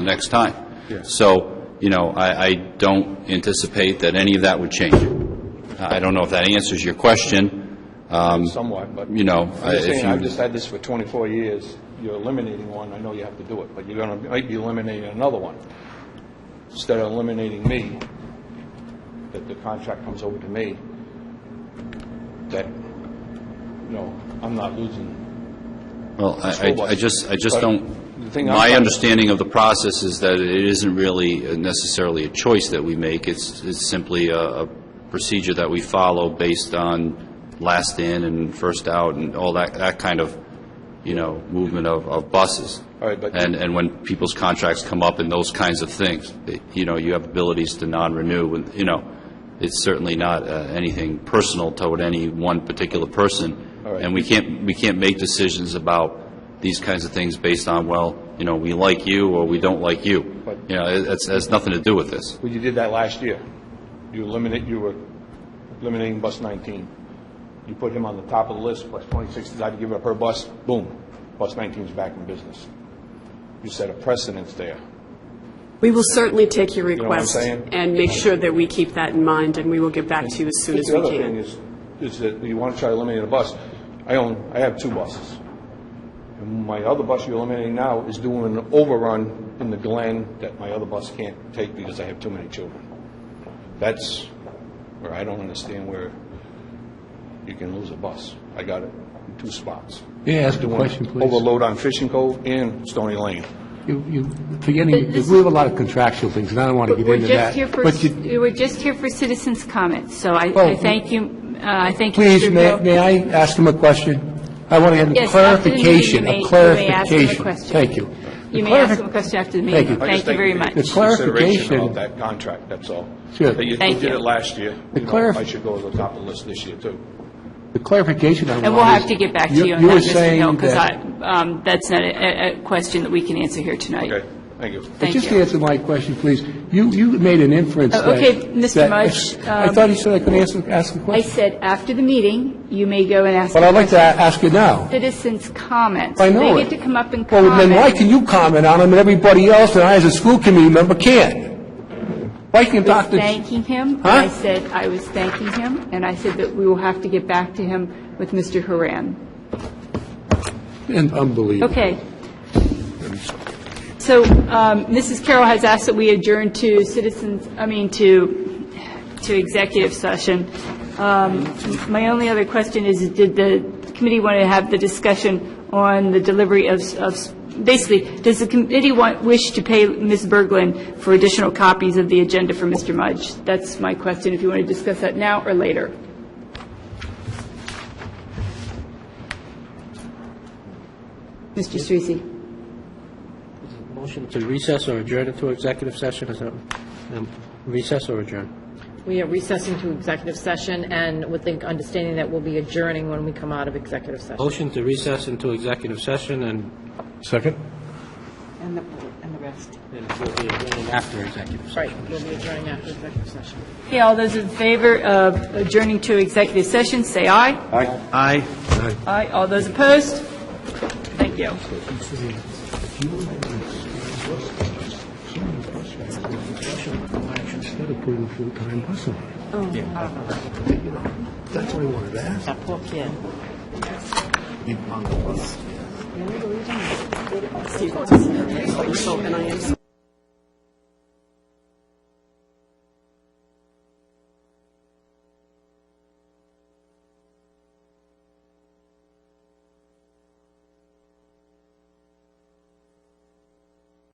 the next time. So, you know, I, I don't anticipate that any of that would change. I I don't know if that answers your question, somewhat, but. you know, I- I'm just if saying, I've you, just had this for 24 years. You're eliminating one, I know you have to do it, but you're going to, might be eliminating another one. Instead of eliminating me, that the contract comes over to me, that, you know, I'm not losing. well, I, school I- I bus. just, I just But don't, the thing I'm my trying- understanding of the process is that it isn't really necessarily a choice that we make, it's, it's simply a, a procedure that we follow based on last in and first out and all that, that kind of, you know, movement of, of buses. All right, but- And, and when people's contracts come up and those kinds of things, they- you know, you have abilities to non-renew, and, you know, it's certainly not uh, anything personal toward any one particular person. All right. And we can't, we can't make decisions about these kinds of things based on, well, you know, we like you or we don't like you. But- You know, it- it's, it's nothing to do with this. Well, you did that last year. You eliminate, you were eliminating bus 19. You put him on the top of the list, bus 26 decided to give up her bus, boom, bus 19's back in business. You set a precedence there. We will certainly take your know what I'm request saying? and make sure that we keep that in mind, and we will get back to you as soon as The we other thing can. is, is that you want to try to eliminate a bus. I own, I have two buses. And my other bus you're eliminating now is doing an overrun in the Glen that my other bus can't take because I have too many children. That's where I don't understand where you can lose a bus. I got it in two spots. May I ask a question, please? Overload on Fishing Cove and Stony Lane. You- you forgetting, we have a lot of contractual things, and I don't want to get We're into just that. here for, But you- we're just here for citizens' comments, so I Oh. I thank you, uh, I thank you. Please, Mr. may Bill. may I ask him a question? I want to get a Yes, after the meeting, clarification, you may- a you may ask him a clarification. question. Thank you. You The may ask clarif- them a question after the Thank you. meeting. I Thank you very much. I just The think you need consideration clarification- about that contract, that's all. Sure. That You Thank you did you. it last year. The You know, clarif- I should go to the top of the list this year, too. The clarification I want is... And we'll have to get back to you on You that, were Mr. Hill, saying because I, that... um, that's not a- a a question that we can answer here tonight. Okay, thank you. Thank Just you. answer my question, please. You you made an inference Oh, that... okay, Mr. that- Mudge, I um, thought he said I could answer, ask a I question. said, after the meeting, you may go and ask But I'd like to a- ask you now. citizens' comments. I know They it. get to come up and Well, comment. then why can you comment on them and everybody else, and I as a school committee member can't? Why can was Dr. thanking him. Huh? I said, I was thanking him, and I said that we will have to get back to him with Mr. Haran. And Unbelievable. Okay. So um, Mrs. Carroll has asked that we adjourn to citizens, I mean, to, to executive session. Um, My only other question is, did the committee want to have the discussion on the delivery of, of basically, does the committee want, wish to pay Ms. Berglund for additional copies of the agenda for Mr. Mudge? That's my question, if you want to discuss that now or later. Mr. Streese? Motion to recess or adjourn into executive session, is that, um, recess or adjourn? We are recessing to executive session and with the understanding that we'll be adjourning when we come out of executive session. Motion to recess into executive session and Second? And the, and the rest. and we'll be adjourning after executive session. Right, we'll be adjourning after executive session. Okay, all those in favor of adjourning to executive session, say aye. Aye. Aye. Aye, all those opposed? Thank you. Instead of putting a full-time bus on it. That's what I wanted to ask. That poor kid. So, and I am-